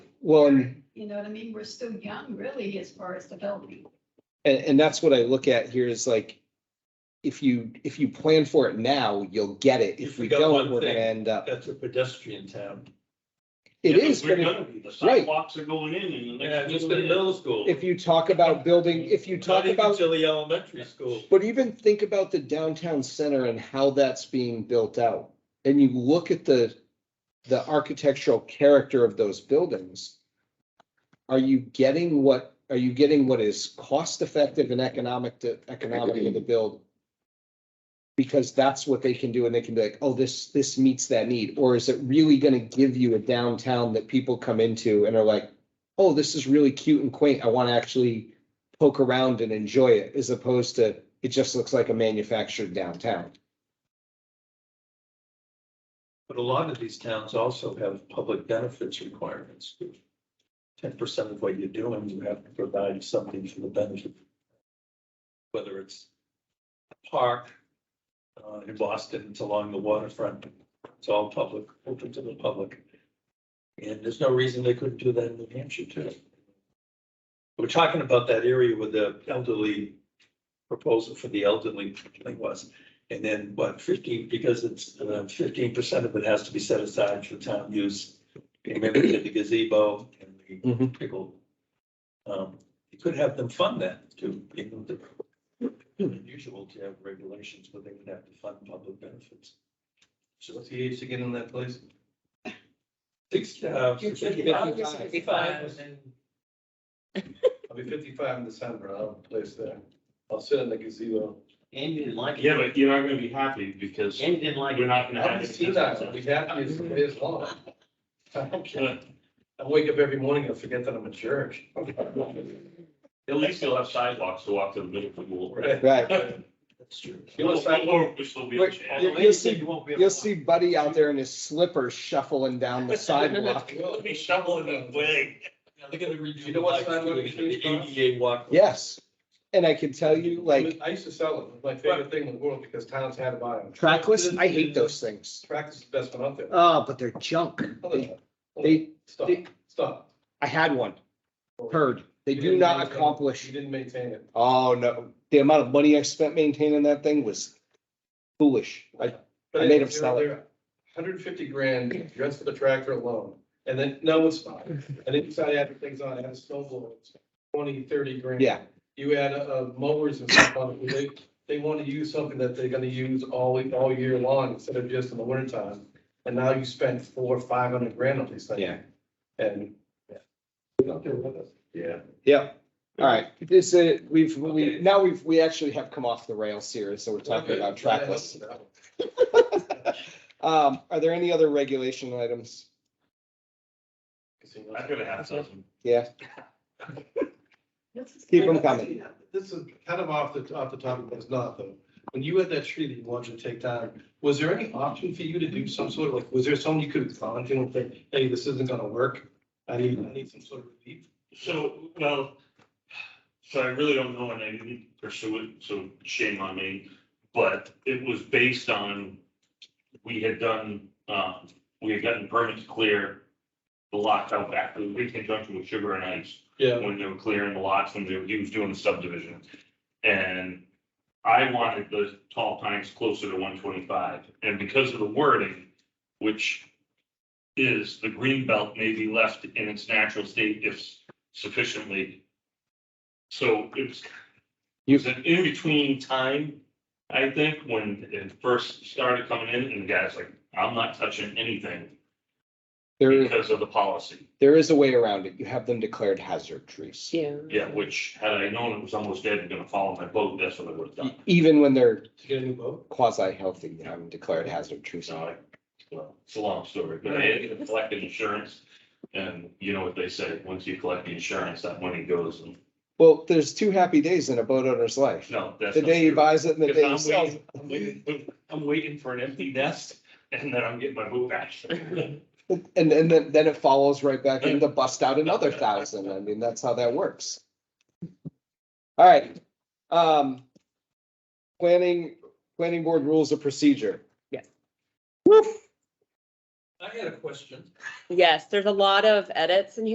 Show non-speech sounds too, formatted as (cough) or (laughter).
Well, and, You know what I mean? We're still young really as far as developing. and, and that's what I look at here is like, if you, if you plan for it now, you'll get it. If You we forgot don't, one we're gonna thing. end up, That's a pedestrian town. it Yeah, but is, We're but if- gonna be, the right. sidewalks are going in and the Yeah, next. just thing been you know, middle school. if you talk about building, if you talk Not even about, till the elementary school. but even think about the downtown center and how that's being built out. And you look at the, the architectural character of those buildings. Are you getting what, are you getting what is cost effective and economic to, economical to build? Because that's what they can do and they can be like, oh, this, this meets that need. Or is it really gonna give you a downtown that people come into and are like, oh, this is really cute and quaint. I wanna actually poke around and enjoy it as opposed to it just looks like a manufactured downtown. But a lot of these towns also have public benefits requirements. Ten percent of what you're doing, you have to provide something for the benefit. Whether it's a park, uh, in Boston, it's along the waterfront, it's all public, open to the public. And there's no reason they couldn't do that in New Hampshire too. We're talking about that area with the elderly proposal for the elderly thing was. And then what, fifteen, because it's uh, fifteen percent of it has to be set aside for town use. Remember we did the gazebo and the Mhm. pickle. Um, you could have them fund that too, you know, the. Unusual to have regulations, but they would have to fund public benefits. So what's the age to get in that place? Six, uh, fifty-five. I'll be fifty-five in December, I'll have a place there. I'll sit in the gazebo. And you didn't like it. Yeah, but you're not gonna be happy because And you didn't like we're it. not gonna I'll have. be it. seen that, I'll be happy as it is long. I don't care. Uh, (laughs) I wake up every morning and forget that I'm a jerk. At least you'll have sidewalks to walk to the middle school. Right. Right. That's true. You know, Or, sidewalk- or which will be a Wait, chance. You'll- you'll see- You'll see Buddy out there in his slippers shuffling down the (laughs) sidewalk. It'll be shoveling the way. Now, They're gonna redo. You know what the sign would be lights, changed, the ADA walk. Yes. And I can tell you, like, I used to sell it, It was my favorite thing in the world, because towns had to buy them. trackless, I hate those things. Track is the best one out there. Ah, but they're junk. Hold They- on, hold on. They, Stop, stop. I had one, heard. They do not You accomplish. didn't maintain it. Oh, no. The amount of money I spent maintaining that thing was foolish. I, But I made anyway, him sell it. they're- they're Hundred and fifty grand just for the tractor alone, and then, no, it's (laughs) fine, and then you start adding things on, add a snow blower, it's twenty, thirty grand. Yeah. You add, uh, mowers and stuff on it, they, they wanna use something that they're gonna use all, all year long instead of just in the winter time. And now you spend four, five hundred grand on these things. Yeah. And. Yeah. Yep. All right. This, uh, we've, we, now we've, we actually have come off the rails here. So we're talking about trackless. Um, are there any other regulation items? I'm gonna have something. Yeah, This is- keep them coming. This is kind of off the, off the topic, but it's not though. When you had that tree that you wanted to take down, was there any option for you to do some sort of, like, was there someone you could have gone to and say, hey, this isn't gonna work? I need, I need some sort of relief. So, well, so I really don't know and I didn't pursue it, so shame on me. But it was based on, we had done, um, we had gotten permits to clear the lots out back, in conjunction with Sugar and Ice. Yeah. when they were clearing the lots, when they were, he was doing the subdivision. And I wanted the tall pines closer to one twenty-five, and because of the wording, which is the green belt may be left in its natural state if sufficiently. So it was, it was an in-between time, I think, when it first started coming in, and the guy's like, I'm not touching anything There, because of the policy. there is a way around it. You have them declared hazard trees. Yeah. Yeah, which had I known it was almost dead and gonna fall on my boat, that's what I would have E- done. Even when they're To get a new boat? quasi healthy, you know, and declared hazard trees. So I, well, it's a long story, but I had collected insurance. And you know what they say, once you collect the insurance, that money goes and, Well, there's two happy days in a boat owner's life. no, that's. The not day he true. buys it and the day he Because I'm sells. waiting, I'm waiting, I'm waiting for an empty nest and then I'm getting my boat back. (laughs) it. And, and then, then it follows right back into bust out another thousand. I mean, that's how that works. All right. Um, planning, planning board rules of procedure. Yes. Woof. I had a question. Yes, there's a lot of edits in here.